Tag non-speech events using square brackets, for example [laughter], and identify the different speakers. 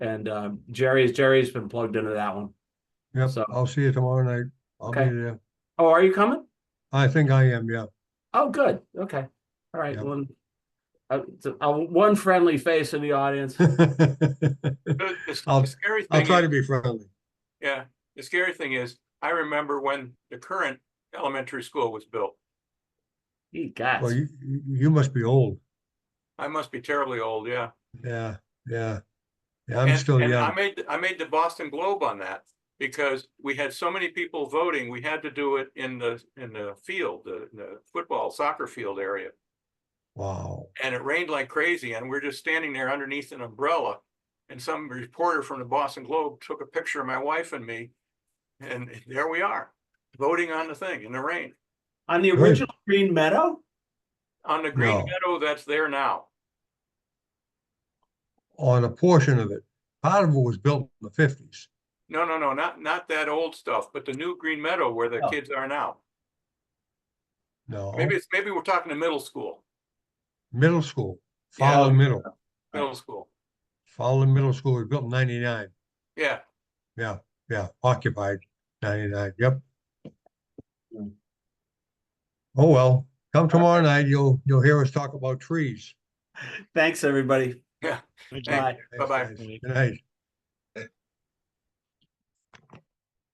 Speaker 1: And um, Jerry's Jerry's been plugged into that one.
Speaker 2: Yep,
Speaker 1: So-
Speaker 2: I'll see you tomorrow night. I'll be
Speaker 1: Okay.
Speaker 2: there.
Speaker 1: Oh, are you coming?
Speaker 2: I think I am, yeah. [laughs]
Speaker 1: Oh, good. Okay. All right.
Speaker 2: Yep.
Speaker 1: One, uh, so, uh, one friendly face in the
Speaker 2: [laughs]
Speaker 1: audience.
Speaker 3: The- the-
Speaker 2: I'll-
Speaker 3: the scary
Speaker 2: I'll
Speaker 3: thing
Speaker 2: try
Speaker 3: is-
Speaker 2: to be friendly.
Speaker 3: Yeah, the scary thing is, I remember when the current elementary school was built.
Speaker 1: Gee, guys.
Speaker 2: Well, you, you you must be old.
Speaker 3: I must be terribly old, yeah.
Speaker 2: Yeah, yeah. Yeah, I'm
Speaker 3: And-
Speaker 2: still
Speaker 3: and I
Speaker 2: young.
Speaker 3: made, I made the Boston Globe on that because we had so many people voting, we had to do it in the, in the field, the, the football soccer field area.
Speaker 2: Wow.
Speaker 3: And it rained like crazy and we're just standing there underneath an umbrella. And some reporter from the Boston Globe took a picture of my wife and me. And there we are, voting on the thing in the rain,
Speaker 1: On the
Speaker 2: Good.
Speaker 1: original Green Meadow?
Speaker 3: on the green
Speaker 2: No.
Speaker 3: meadow that's there now.
Speaker 2: On a portion of it. Part of it was built in the fifties.
Speaker 3: No, no, no, not, not that old stuff, but the new Green Meadow where the
Speaker 1: Oh.
Speaker 3: kids are now.
Speaker 2: No,
Speaker 3: Maybe it's, maybe we're talking to middle school,
Speaker 2: middle school,
Speaker 3: Yeah.
Speaker 2: Fowler Middle.
Speaker 3: middle school.
Speaker 2: Fowler Middle School was built in ninety-nine.
Speaker 3: Yeah,
Speaker 2: Yeah, yeah, occupied ninety-nine, yep.
Speaker 1: Hmm.
Speaker 2: Oh, well, come tomorrow night, you'll, you'll hear us talk about trees.
Speaker 1: Thanks, everybody.
Speaker 3: Yeah.
Speaker 1: Bye.
Speaker 2: Thanks,
Speaker 3: Bye-bye.
Speaker 2: guys. Good night.